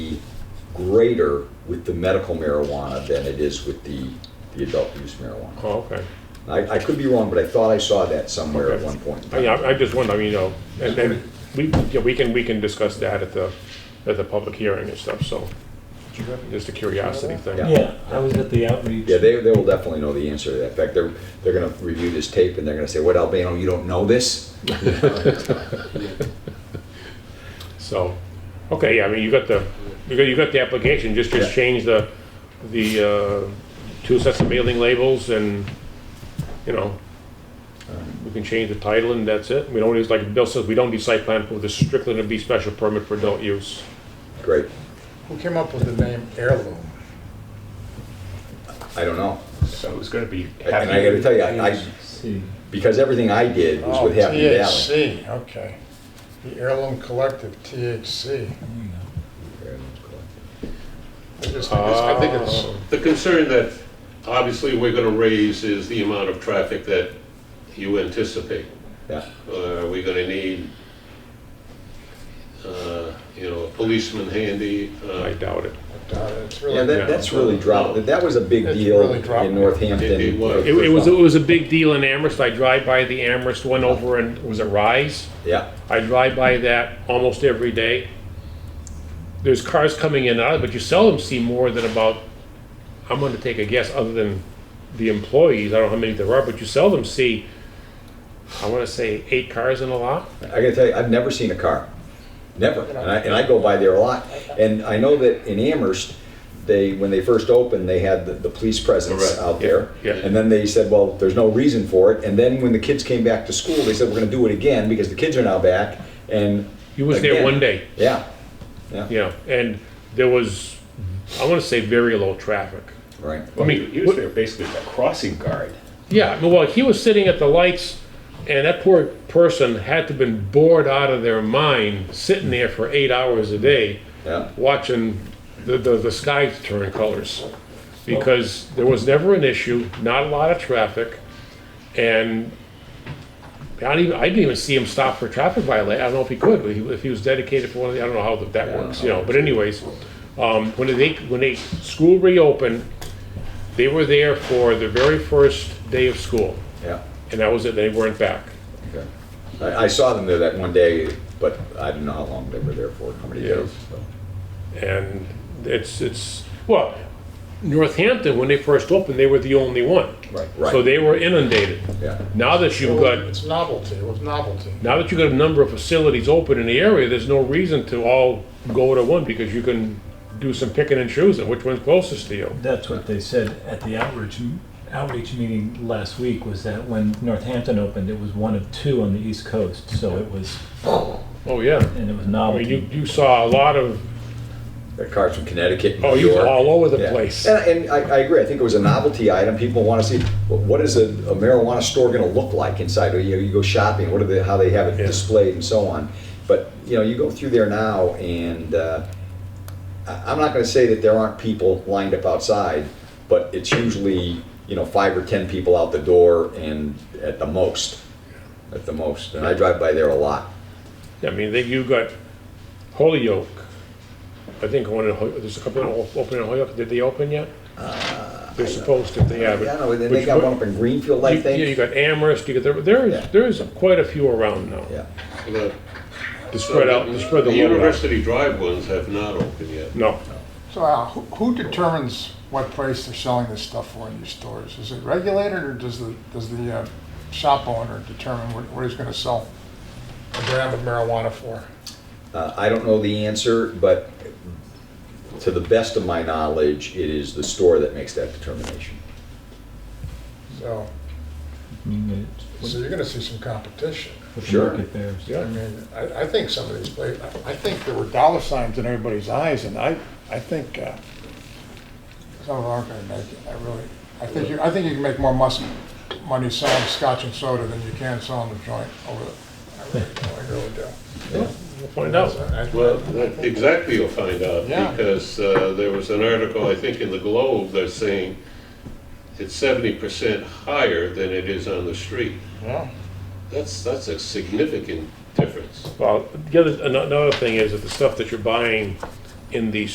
greater with the medical marijuana than it is with the, the adult use marijuana. Oh, okay. I, I could be wrong, but I thought I saw that somewhere at Okay. Oh, one point. in I, time. I I just wonder, I mean, you know, and then we, yeah, we can, we can discuss that at the, at the public hearing and stuff, so. Just a curiosity thing. Yeah. Yeah, I was at the outreach. Yeah, they, they will definitely know the answer to that. In fact, they're, they're gonna review this tape and they're gonna say, what, Albano, you don't know this? So, okay, yeah, I mean, you got the, you got, you got the application, just, just Yeah. change the, the, uh, two sets of mailing labels and, you know, we can change the title and that's it. We don't, use like Bill says, we don't need site plan approval, this is strictly to be special permit for adult use. Great. Who came up with the name heirloom? I don't know. So it was gonna be And I gotta happy. tell you, I, I- See, because everything I did was with Oh, Happy Valley. THC, okay. The Heirloom Collective, THC. there you go. I just think it's- Ah. I think it's, The concern that obviously we're going to raise is the amount of traffic that you anticipate. Yeah, Uh, Are we going to need, uh, you know, a policeman handy? Uh, Oh, I doubt it. I doubt it. uh, it's yeah, really, that, that's really dropped, that- that was a big It's deal really dropped. in Northampton. It- it was. It, it was, it was a big deal in Amherst, I drive by the Amherst one over in, was it Rise? Yeah, I drive by that almost every day. There's cars coming in and out, but you seldom see more than about, I'm gonna take a guess, other than the employees, I don't know how many there are, but you seldom see, I wanna say eight cars in a lot. I gotta tell you, I've never seen a car, never. And I, and I go by there a lot. And I know that in Amherst, they, when they first opened, they had the, the police presence Correct. out there. Yeah. And then they said, well, there's no reason for it. And then when the kids came back to school, they said, we're gonna do it again because the kids are now back and. You was there again. one day, Yeah, you know, and there was, I wanna say very low traffic. right. I mean, he was there basically as a crossing guard. Yeah, I mean, well, he was sitting at the lights, and that poor person had to have been bored out of their mind, sitting there for eight hours a day. Yeah. watching the, the, the sky turn colors because there was never an issue, not a lot of traffic, and I didn't even, I didn't even see him stop for traffic violation. I don't know if he could, but he, if he was dedicated for one of the, I don't know how that works, you know. But anyways, um, when they when they school reopened, they were there for the very first day of school, Yeah, and that was it. They weren't back. okay. I, I saw them there that one day, but I don't know how long they were there for, how many Yeah. days, so. and it's, it's, well, Northampton, when they first opened, they were the only one. Right, right. So they were inundated. Yeah. Now that you've got, it's novelty, it was novelty. now that you've got a number of facilities open in the area, there's no reason to all go to one because you can do some picking and choosing, which one's closest to you. That's what they said at the outreach, outreach meeting last week, was that when Northampton opened, it was one of two on the East Coast, so it was, Oh, yeah. and it was I mean, you, novelty. you saw a lot of, The cars from Connecticut. and oh, New you were York. all over the Yeah. place. And, and I, I agree. I think it was a novelty item. People want to see wh- what is a, a marijuana store going to look like inside. You know, you go shopping. What are the how they have it Yeah. displayed and so on. But you know, you go through there now, and uh, I, I'm not going to say that there aren't people lined up outside, but it's usually you know five or ten people out the door, and at the most, at the most. And I drive by there a lot. I mean, they, you got Holyoke. I think one in, Hol- there's a couple of open in Holyoke. Did they open yet? Uh, They're supposed to, they haven't. Yeah, no, then Which they got one- one up in Greenfield, I You- think. Yeah, you got Amherst, you got, there- there Yeah. is, there is quite a few around now, yeah. but- to spread out, to spread the load out. University Drive ones have not opened yet. No, So Al, who who determines what price they're selling this stuff for in these stores? Is it regulated, or does the, does the uh, shop owner determine what- what he's gonna sell a gram of marijuana for? Uh, I don't know the answer, but to the best of my knowledge, it is the store that makes that determination. So, I mean, it's- so you're gonna see some competition. with the Sure. market bears. I mean, I, I think some of these places, I think there were dollar signs in everybody's eyes, and I, I think, uh, some of them aren't gonna make it, I really, I think you, I think you can make more mus, money selling scotch and soda than you can selling the joint over the, I really, do, I really do. we'll find out. So I- Well, that- exactly, you'll find out, Yeah. because uh, there was an article, I think, in the Globe that's saying it's seventy percent higher than it is on the street. Yeah. That's, that's a significant difference. Well, the other, ano- another thing is that the stuff that you're buying in the